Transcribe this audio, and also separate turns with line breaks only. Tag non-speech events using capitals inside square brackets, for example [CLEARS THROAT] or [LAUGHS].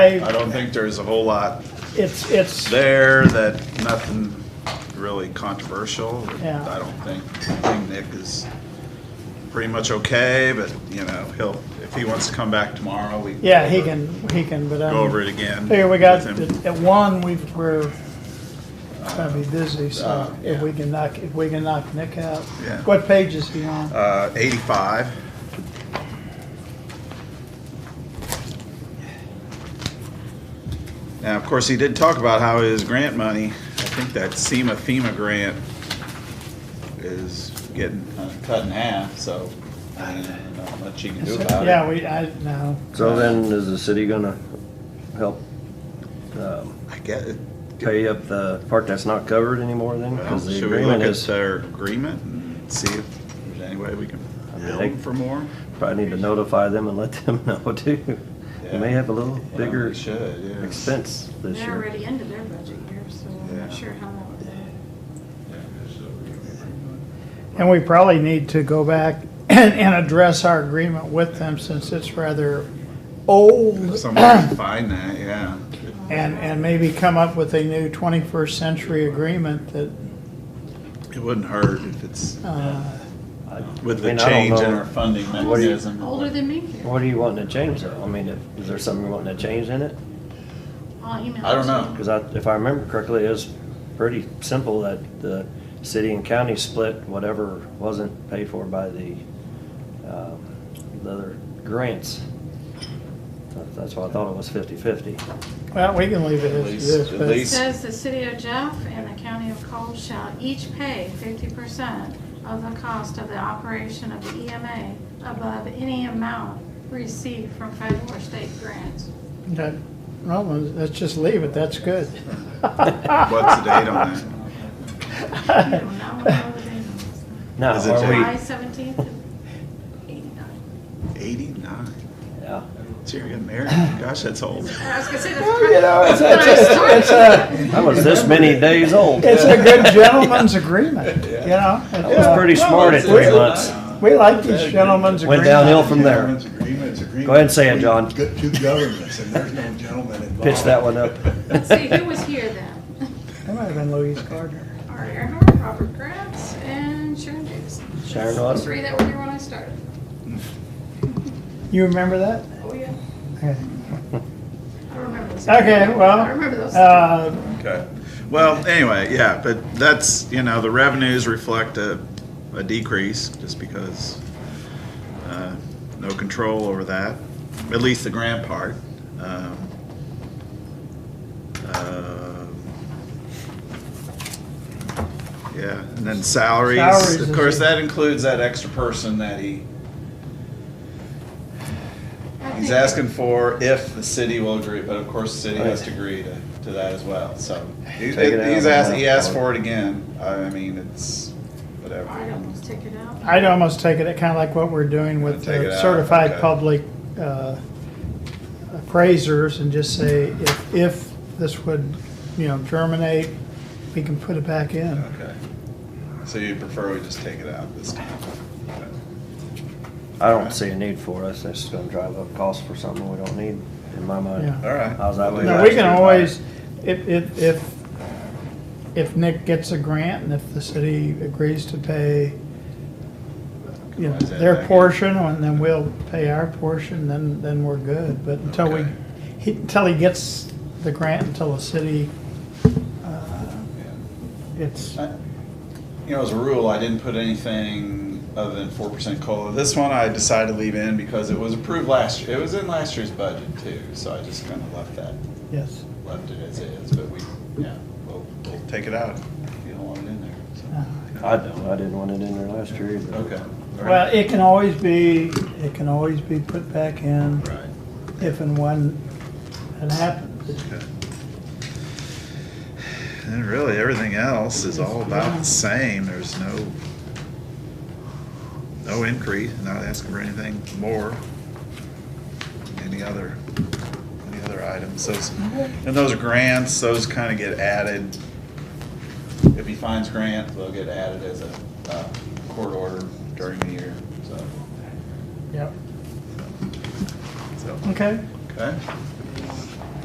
I don't think there's a whole lot
It's, it's,
there that, nothing really controversial.
Yeah.
I don't think, I think Nick is pretty much okay, but, you know, he'll, if he wants to come back tomorrow, we.
yeah, he can, he can, but
Go over it
I
again.
figure we got,
with him.
at at one, we, we're gonna be busy, so
Uh,
if
yeah.
we can knock, if we can knock Nick out.
Yeah.
What page is he on?
Uh, eighty-five. Now, of course, he did talk about how his grant money, I think that SEMA FEMA grant is getting uh, cut in half, so I don't know much you can do about it.
Yeah, we, I, no,
So then, is the city gonna help um,
I get it.
pay up the part that's not covered anymore then?
Well,
Because the
Should we look
agreement
at
is,
their agreement and see if there's any way we can
mean,
bill
they-
them for more?
probably need to notify them and let [LAUGHS] them know too. They may have a little
Yeah,
bigger
we Should, yeah.
expense this
They're
year.
already into their budget year, so I'm
Yeah.
not sure how that would go.
and we probably need to go back [CLEARS THROAT] and, and address our agreement with them since it's rather old. [CLEARS THROAT]
Someone can find that, yeah.
And, and maybe come up with a new twenty-first century agreement that,
It wouldn't hurt if it's
uh,
I-
with
I
the
mean, I don't
change in
know.
our funding
What do you-
mechanism.
Older than me here.
What are you wanting to change though? I mean, if- is there something you're wanting to change in it?
I'll email.
I don't
it to
know.
Because I, if I remember correctly, it was pretty simple that the city and county split whatever wasn't paid for by the, um, the other grants. That- That's why I thought it was fifty-fifty.
well, we can leave it
At
as
least-
this,
at
but-
It
least-
says the city of Jeff and the county of Cole shall each pay fifty percent of the cost of the operation of the EMA above any amount received from federal or state
[LAUGHS]
grants.
Okay. Well, let's- let's just leave it, that's good.
What's the date on that?
I don't know what the date is.
Now,
Is it
are
July
we,
seventeenth, eighty-nine.
Eighty-nine.
yeah,
Gee, you got married? Gosh, that's old.
I was gonna say
[LAUGHS]
that's.
You know, it's, it's, it's, it's a, [LAUGHS]
I was this many days old.
it's a good gentleman's agreement, you know? It
was pretty smart at three months.
We like these gentlemen's
Went
agreements.
downhill from there.
Gentlemen's agreement is agreement.
Go ahead and say it, John.
We've got two governments, and there's no gentleman involved.
Pitch that one up.
Let's see, who was here then?
That might have been Louise Gardner.
Art Earnhardt, Robert Gratz, and Sharon Davis.
Sharon
The
was.
Three that were here when I started.
You remember that?
Oh, yeah.
Okay.
I remember those.
Okay,
I
well,
remember those.
uh,
Okay. Well, anyway, yeah, but that's, you know, the revenues reflect a, a decrease just because, uh, no control over that, at least the grant part. Um, um, Yeah, and then
Salaries
salaries,
is-
of course, that includes that extra person that he,
I
he's
think-
asking for if the city will agree, but of course, the city has to
Right.
agree to, to that as well, so. he- He's
Take it out of the
asked, he
mouth.
asked for it again, I mean, it's, whatever.
I'd almost take it out.
I'd almost take it, kind of like what we're doing with
Take it
the
out,
certified
okay.
public uh, appraisers and just say, if, if this would, you know, germinate, we can put it back in.
Okay. So you prefer we just take it out this time?
I don't see a need for us. It's gonna drive up costs for something we don't need, in my mind.
Yeah.
All right.
How's that look?
No, we can always, if, if, if, if Nick gets a grant and if the city agrees to pay, you know,
Why is that back
their
in?
portion, and then we'll pay our portion, then, then we're good. But until we,
Okay.
he, until he gets the grant, until the city, uh, it's,
I- You know, as a rule, I didn't put anything other than four percent COLA. This one I decided to leave in because it was approved last, year. it was in last year's budget too, so I just kind of left that,
yes.
left it as is, but we, yeah, we'll, we'll take it out. if You don't want it in there, so.
I don't, I didn't want it in there last year either.
Okay. All
Well,
right.
it can always be, it can always be put back in
Right.
if and when it happens.
Okay. And really, everything else is all about the same, there's no, no increase, not asking for anything more. Any other, any other items, those, and those grants, those kinda get added. If he finds grants, they'll get added as a, uh, court order during the year, so,
Yep.
so,
Okay.
okay.